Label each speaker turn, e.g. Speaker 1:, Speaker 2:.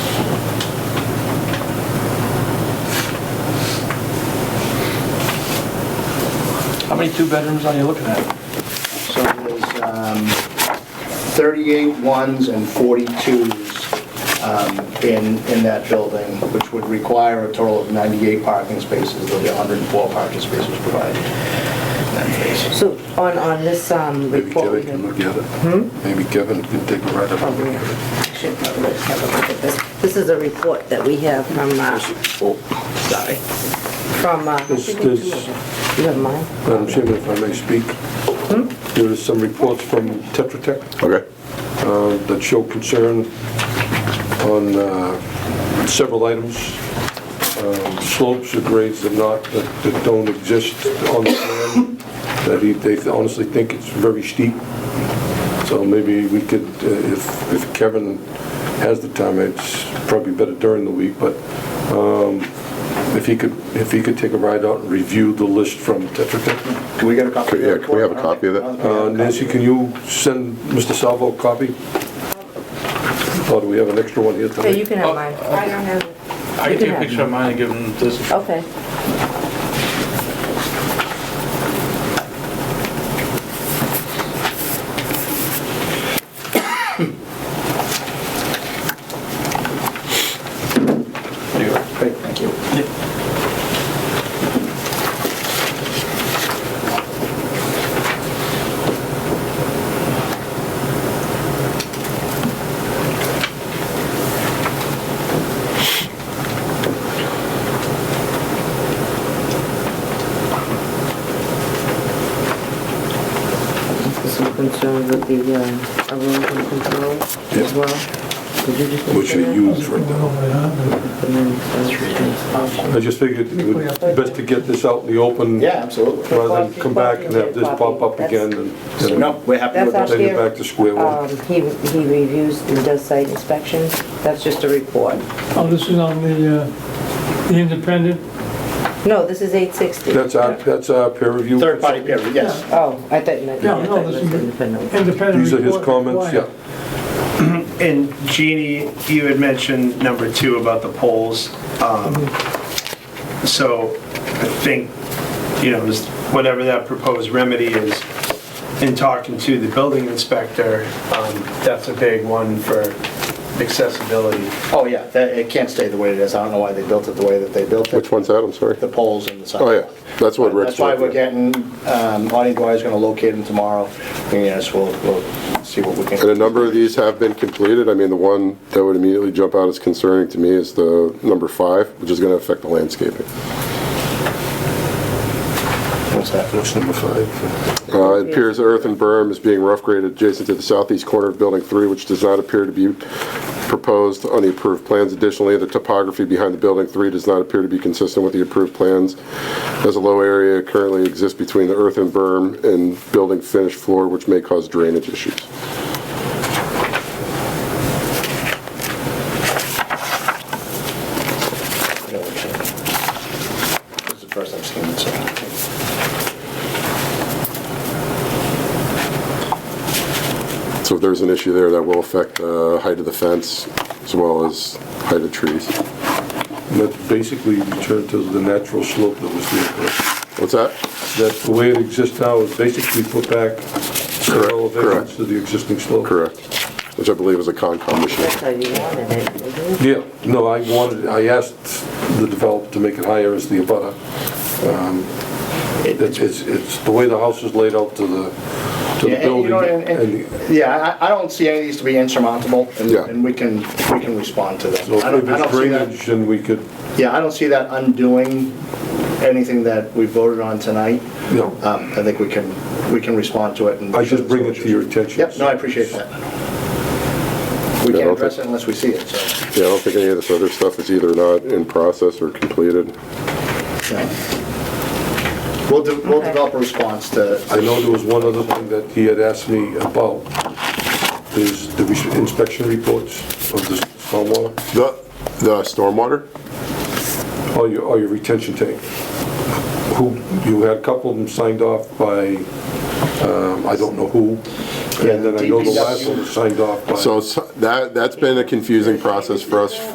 Speaker 1: many two-bedrooms are you looking at?
Speaker 2: So there's um, 38 ones and 42s um, in, in that building, which would require a total of 98 parking spaces. There'll be 104 parking spaces provided in that phase.
Speaker 3: So on, on this um,
Speaker 4: Maybe
Speaker 3: report, we
Speaker 4: Kevin
Speaker 3: can
Speaker 4: can look at it. Maybe Kevin can take a ride up.
Speaker 3: probably, should probably just have a look at this. This is a report that we have from, uh, oh, sorry, from, uh,
Speaker 4: This- this-
Speaker 3: you have mine?
Speaker 4: Madam Chairman, if I may speak, there is some reports from Tetra Tech
Speaker 5: Okay.
Speaker 4: uh, that show concern on uh, several items, um, slopes or grades that not, that that don't exist on the plan, that he- they honestly think it's very steep. So maybe we could, uh, if if Kevin has the time, it's probably better during the week, but um, if he could, if he could take a ride out and review the list from Tetra Tech.
Speaker 2: Can we get a copy of that?
Speaker 5: Yeah, can we have a
Speaker 2: report?
Speaker 5: copy of that?
Speaker 2: I don't think we
Speaker 4: Uh,
Speaker 2: have a
Speaker 4: Nancy,
Speaker 2: copy
Speaker 4: can
Speaker 2: of
Speaker 4: you send Mr. Salvo a copy? Or do we have an extra one here
Speaker 3: Yeah, you
Speaker 4: tonight?
Speaker 3: can have mine. Oh, I don't have it.
Speaker 1: I can take a picture of mine and give them this.
Speaker 3: Okay.
Speaker 2: it. Great, thank you.
Speaker 3: Some concerns with the uh, erosion control as
Speaker 4: Yeah.
Speaker 3: well. Could you just?
Speaker 4: Which they use right now.
Speaker 3: uh,
Speaker 4: I just figured it would be best to get this out in the open.
Speaker 2: Yeah, absolutely.
Speaker 4: Rather than come back and have this pop up again and
Speaker 2: So, No, we're happy with
Speaker 3: That's
Speaker 2: that.
Speaker 3: our-
Speaker 4: then you're back to square
Speaker 3: Um,
Speaker 4: one.
Speaker 3: he, he reviews and does site inspections. That's just a report.
Speaker 6: Oh, this is on the, uh, the independent?
Speaker 3: No, this is eight sixty.
Speaker 4: That's our, that's our peer review.
Speaker 2: Third-party peer review, yes.
Speaker 3: Oh, I thought you meant,
Speaker 6: No,
Speaker 3: I
Speaker 6: no,
Speaker 3: thought you
Speaker 6: this
Speaker 3: meant
Speaker 6: is-
Speaker 3: independent.
Speaker 6: Independent
Speaker 4: These are his
Speaker 6: report
Speaker 4: comments, yeah.
Speaker 6: required.
Speaker 7: And Jeannie, you had mentioned number two about the polls. Um, So I think, you know, just whatever that proposed remedy is, in talking to the building inspector, um, that's a big one for accessibility.
Speaker 2: Oh, yeah, that- it can't stay the way it is. I don't know why they built it the way that they built it,
Speaker 5: Which one's that? I'm sorry.
Speaker 2: the poles and the sidewalk.
Speaker 5: Oh, yeah. That's what Rick's
Speaker 2: That's why we're
Speaker 5: looking at.
Speaker 2: getting, um, Audie Dwyer's gonna locate him tomorrow, and yes, we'll, we'll see what we can.
Speaker 5: And a number of these have been completed. I mean, the one that would immediately jump out as concerning to me is the number five, which is going to affect the landscaping.
Speaker 2: What's that?
Speaker 4: That's number five.
Speaker 5: Uh, It appears earth and berm is being rough graded adjacent to the southeast corner of Building 3, which does not appear to be proposed on the approved plans. Additionally, the topography behind the Building 3 does not appear to be consistent with the approved plans, as a low area currently exists between the earth and berm and building finished floor, which may cause drainage issues.
Speaker 2: This is the first I've seen it, so.
Speaker 5: So if there's an issue there, that will affect the height of the fence as well as height of trees.
Speaker 4: And That basically returned to the natural slope that was there. correct?
Speaker 5: What's that?
Speaker 4: That the way it exists now is basically put back several elevations to the existing slope.
Speaker 5: Correct. Which I believe is a Concom issue.
Speaker 3: That's how you wanted it. isn't it?
Speaker 4: Yeah, no, I wanted, I asked the developer to make it higher as the abutter. Um, It's, it's, it's the way the house is laid out to the, to
Speaker 2: Yeah,
Speaker 4: the
Speaker 2: and you
Speaker 4: building.
Speaker 2: know, and-
Speaker 4: and-
Speaker 2: and- Yeah, I, I don't see any of these to be insurmountable, and,
Speaker 5: Yeah.
Speaker 2: and we can, we can respond to them.
Speaker 4: So
Speaker 2: I don't,
Speaker 4: if
Speaker 2: I
Speaker 4: it's
Speaker 2: don't see that.
Speaker 4: drainage, then we could,
Speaker 2: Yeah, I don't see that undoing anything that we voted on tonight.
Speaker 4: you know,
Speaker 2: Um, I think we can, we can respond to it and.
Speaker 4: I just bring it to your attention.
Speaker 2: Yep, no, I appreciate that. We can't
Speaker 5: Yeah, okay.
Speaker 2: address it unless we see it, so.
Speaker 5: Yeah, I don't think any of this other stuff is either not in process or completed.
Speaker 2: yeah. We'll, de- we'll
Speaker 3: Okay.
Speaker 2: develop a response to,
Speaker 4: I know there was one other thing that he had asked me about, is the res- inspection reports of the stormwater,
Speaker 5: The, the stormwater?
Speaker 4: or your, or your retention tank. Who, you had a couple of them signed off by, um, I don't know who, and then I know the last one was signed off by.
Speaker 5: So s- that, that's been a confusing process for us